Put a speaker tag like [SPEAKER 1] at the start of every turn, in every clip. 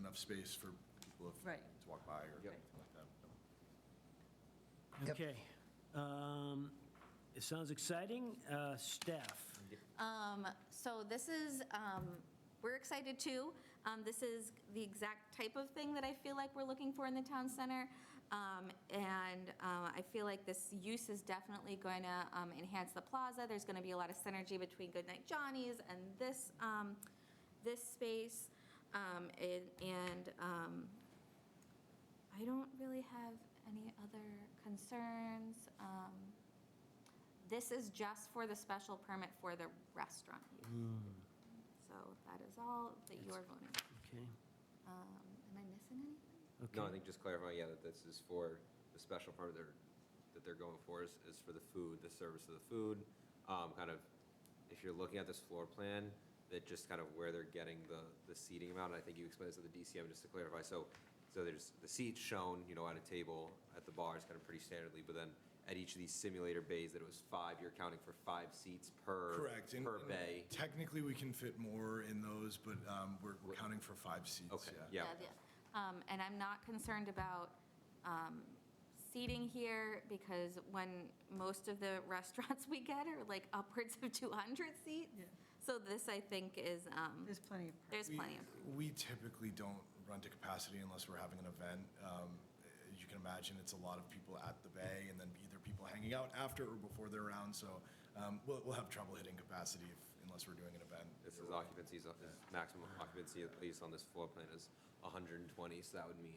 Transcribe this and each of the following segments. [SPEAKER 1] enough space for people if-
[SPEAKER 2] Right.
[SPEAKER 1] to walk by or
[SPEAKER 2] Yep.
[SPEAKER 1] anything like that.
[SPEAKER 3] Yep.
[SPEAKER 4] Okay. Um, It sounds exciting. Uh, Staff?
[SPEAKER 2] Um, So this is, um, we're excited too. Um, This is the exact type of thing that I feel like we're looking for in the town center. Um, And uh, I feel like this use is definitely going to um, enhance the plaza. There's going to be a lot of synergy between Goodnight Johnny's and this, um, this space. Um, and- And um, I don't really have any other concerns. Um, This is just for the special permit for the restaurant use.
[SPEAKER 5] Mm.
[SPEAKER 2] So that is all that you are voting.
[SPEAKER 4] Okay.
[SPEAKER 2] Um, Am I missing anything?
[SPEAKER 6] No, I
[SPEAKER 4] Okay.
[SPEAKER 6] think just clarifying, yeah, that this is for the special part they're, that they're going for is, is for the food, the service of the food. Um, kind of, if you're looking at this floor plan, that just kind of where they're getting the, the seating amount, I think you explained this at the DCM, just to clarify, so, so there's the seats shown, you know, at a table, at the bar, it's kind of pretty standardly, but then at each of these simulator bays, that it was five, you're counting for five seats per,
[SPEAKER 1] Correct. and-
[SPEAKER 6] per
[SPEAKER 1] and
[SPEAKER 6] bay.
[SPEAKER 1] Technically, we can fit more in those, but um, we're we're counting for five seats.
[SPEAKER 6] Okay, yeah.
[SPEAKER 2] the- um, And I'm not concerned about um, seating here because when most of the restaurants we get are like upwards of 200 seats.
[SPEAKER 7] Yeah.
[SPEAKER 2] So this, I think, is, um,
[SPEAKER 7] There's plenty of parking.
[SPEAKER 2] there's
[SPEAKER 1] We-
[SPEAKER 2] plenty of
[SPEAKER 1] We typically don't run to capacity unless we're having an event. Um, As you can imagine, it's a lot of people at the bay and then either people hanging out after or before they're around. So um, we'll, we'll have trouble hitting capacity if- unless we're doing an event.
[SPEAKER 6] This is occupancy, is is maximum occupancy, at least on this floor plan, is 120, so that would mean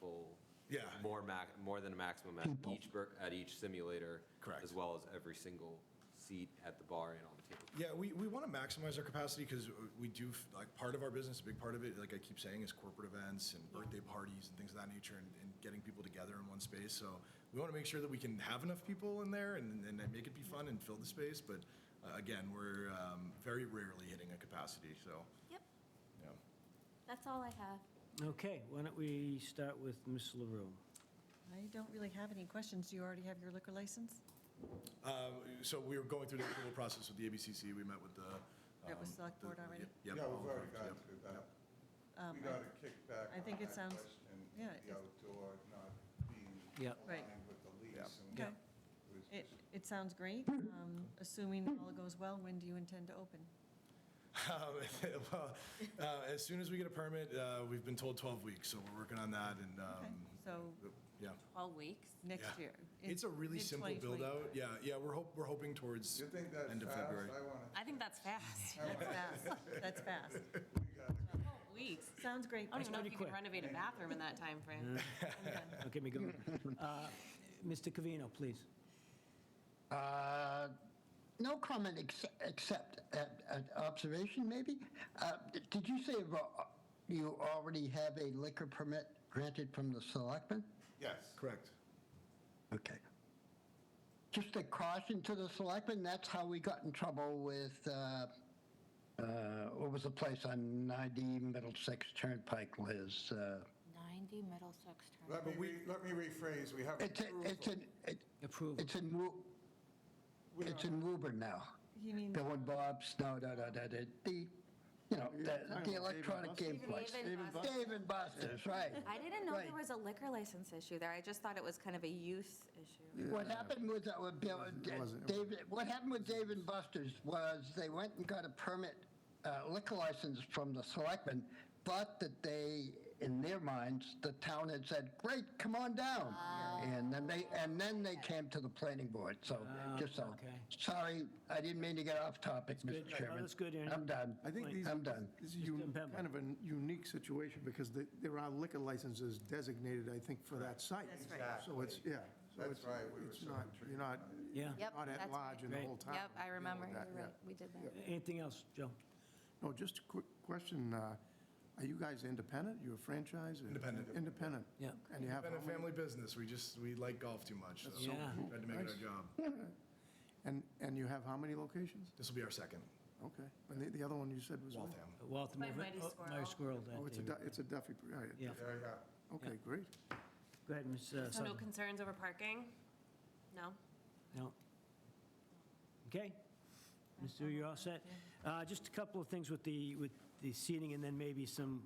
[SPEAKER 6] full.
[SPEAKER 1] Yeah.
[SPEAKER 6] More max, more than a maximum at each, bur- at each simulator.
[SPEAKER 1] Correct.
[SPEAKER 6] As well as every single seat at the bar and on the table.
[SPEAKER 1] Yeah, we, we want to maximize our capacity because we do, f- like, part of our business, a big part of it, like I keep saying, is corporate events and birthday parties and things of that nature and, and getting people together in one space. So we want to make sure that we can have enough people in there and, and make it be fun and fill the space. But uh, again, we're um, very rarely hitting a capacity, so,
[SPEAKER 2] Yep,
[SPEAKER 1] yeah.
[SPEAKER 2] that's all I have.
[SPEAKER 4] Okay, why don't we start with Ms. LaRue?
[SPEAKER 7] I don't really have any questions. Do you already have your liquor license?
[SPEAKER 1] Um, So we were going through the approval process with the ABCC. We met with the.
[SPEAKER 7] That was
[SPEAKER 1] um,
[SPEAKER 7] select
[SPEAKER 1] the-
[SPEAKER 7] board already?
[SPEAKER 1] Yep.
[SPEAKER 8] Yeah, we've
[SPEAKER 1] all approved,
[SPEAKER 8] already got
[SPEAKER 1] Oh, yep.
[SPEAKER 8] to that.
[SPEAKER 7] Um,
[SPEAKER 8] We
[SPEAKER 7] I-
[SPEAKER 8] got to kick back
[SPEAKER 7] I
[SPEAKER 8] on
[SPEAKER 7] think it
[SPEAKER 8] that
[SPEAKER 7] sounds-
[SPEAKER 8] question,
[SPEAKER 7] yeah,
[SPEAKER 8] the
[SPEAKER 7] it's-
[SPEAKER 8] outdoor not being
[SPEAKER 4] Yeah.
[SPEAKER 7] Right.
[SPEAKER 8] aligned with the lease.
[SPEAKER 1] Yeah.
[SPEAKER 8] and
[SPEAKER 7] Okay.
[SPEAKER 8] it was
[SPEAKER 7] It,
[SPEAKER 8] just-
[SPEAKER 7] it sounds great. Um, Assuming all goes well, when do you intend to open?
[SPEAKER 1] Um, Well, uh, as soon as we get a permit, uh, we've been told 12 weeks, so we're working on that and,
[SPEAKER 7] Okay,
[SPEAKER 1] um,
[SPEAKER 7] So
[SPEAKER 1] yeah.
[SPEAKER 2] 12 weeks?
[SPEAKER 7] next
[SPEAKER 1] Yeah.
[SPEAKER 7] year.
[SPEAKER 1] It's a really simple
[SPEAKER 7] mid-twenty
[SPEAKER 1] build
[SPEAKER 7] twenty.
[SPEAKER 1] out. Yeah, yeah, we're hope, we're hoping towards
[SPEAKER 8] You think that's
[SPEAKER 1] end of
[SPEAKER 8] fast?
[SPEAKER 1] February.
[SPEAKER 8] I want to,
[SPEAKER 9] I think that's fast.
[SPEAKER 7] That's fast. That's fast.
[SPEAKER 9] Twelve weeks.
[SPEAKER 7] Sounds great.
[SPEAKER 9] I don't even know if
[SPEAKER 4] pretty
[SPEAKER 9] you can
[SPEAKER 4] quick.
[SPEAKER 9] renovate a bathroom in that time frame.
[SPEAKER 4] Don't get me going. Uh, Mr. Covino, please.
[SPEAKER 3] Uh,
[SPEAKER 10] No comment ex- except at, at observation, maybe. Uh, d- did you say you've al- you already have a liquor permit granted from the selectmen?
[SPEAKER 8] yes.
[SPEAKER 1] Correct.
[SPEAKER 10] Okay. Just a caution to the selectmen. That's how we got in trouble with uh, uh, what was the place on 90 Middlesex Turnpike, Liz? Uh,
[SPEAKER 2] 90 Middlesex Turnpike.
[SPEAKER 8] Let me, re- let me rephrase, we have
[SPEAKER 10] it's a, it's
[SPEAKER 8] approval.
[SPEAKER 10] in it,
[SPEAKER 4] Approval.
[SPEAKER 10] it's in Wu-
[SPEAKER 8] We
[SPEAKER 10] it's
[SPEAKER 8] don't-
[SPEAKER 10] in Woburn now.
[SPEAKER 7] You mean,
[SPEAKER 10] Bill and Bob's, no, no, no, no, the, the, you know, the, the electronic game place.
[SPEAKER 2] Dave and Buster's.
[SPEAKER 10] Dave and Buster's, right.
[SPEAKER 2] I didn't know there
[SPEAKER 10] Right.
[SPEAKER 2] was a liquor license issue there. I just thought it was kind of a use issue.
[SPEAKER 10] What happened was that with Bill, David, what happened with Dave and Buster's was they went and got a permit, uh, liquor license from the selectmen, but that they, in their minds, the town had said, great, come on down. And then they, and then they came to the planning board, so, just so.
[SPEAKER 4] Ah, okay.
[SPEAKER 10] Sorry, I didn't mean to get off topic,
[SPEAKER 4] good.
[SPEAKER 10] Mr.
[SPEAKER 4] No,
[SPEAKER 10] Chairman.
[SPEAKER 4] that's good, Ernie.
[SPEAKER 10] I'm done.
[SPEAKER 5] I think these.
[SPEAKER 10] I'm done.
[SPEAKER 5] This is un-
[SPEAKER 4] Pemba.
[SPEAKER 5] kind of a unique situation because the- there are liquor licenses designated, I think, for that site.
[SPEAKER 7] That's right.
[SPEAKER 5] So it's, yeah. so
[SPEAKER 8] That's
[SPEAKER 5] it's-
[SPEAKER 8] right, we were
[SPEAKER 5] It's
[SPEAKER 8] so
[SPEAKER 5] not, you're not,
[SPEAKER 4] Yeah.
[SPEAKER 2] Yep,
[SPEAKER 5] not
[SPEAKER 2] that's
[SPEAKER 5] at large in the
[SPEAKER 4] right.
[SPEAKER 5] whole town.
[SPEAKER 2] Yep, I
[SPEAKER 5] Deal with
[SPEAKER 2] remember.
[SPEAKER 5] that,
[SPEAKER 2] You're
[SPEAKER 5] yeah.
[SPEAKER 2] right. We did that.
[SPEAKER 4] Anything else, Joe?
[SPEAKER 5] No, just a quick question. uh, Are you guys independent? You a franchise? or-
[SPEAKER 1] Independent.
[SPEAKER 5] Independent?
[SPEAKER 4] Yeah.
[SPEAKER 5] And you have,
[SPEAKER 1] Been a
[SPEAKER 5] how many-
[SPEAKER 1] family business. We just, we like golf too much, so
[SPEAKER 4] so Yeah. cool.
[SPEAKER 1] tried to make it
[SPEAKER 5] Nice.
[SPEAKER 1] our job.
[SPEAKER 5] and, and you have how many locations?
[SPEAKER 1] This will be our second,
[SPEAKER 5] Okay. And the, the other one you said was?
[SPEAKER 1] Waltham.
[SPEAKER 4] Waltham.
[SPEAKER 9] By Mighty
[SPEAKER 4] oh,
[SPEAKER 9] Squirrel.
[SPEAKER 4] Mighty Squirrel, that
[SPEAKER 5] Oh, it's a,
[SPEAKER 4] David.
[SPEAKER 5] Du- it's a Duffy, all right.
[SPEAKER 4] Yeah.
[SPEAKER 8] There you go.
[SPEAKER 5] Okay, great.
[SPEAKER 4] Go ahead, Ms. uh,
[SPEAKER 9] So no
[SPEAKER 4] Sutherland.
[SPEAKER 9] concerns over parking? No?
[SPEAKER 4] No. Okay. Mr. You're all set? Uh, Just a couple of things with the, with the seating and then maybe some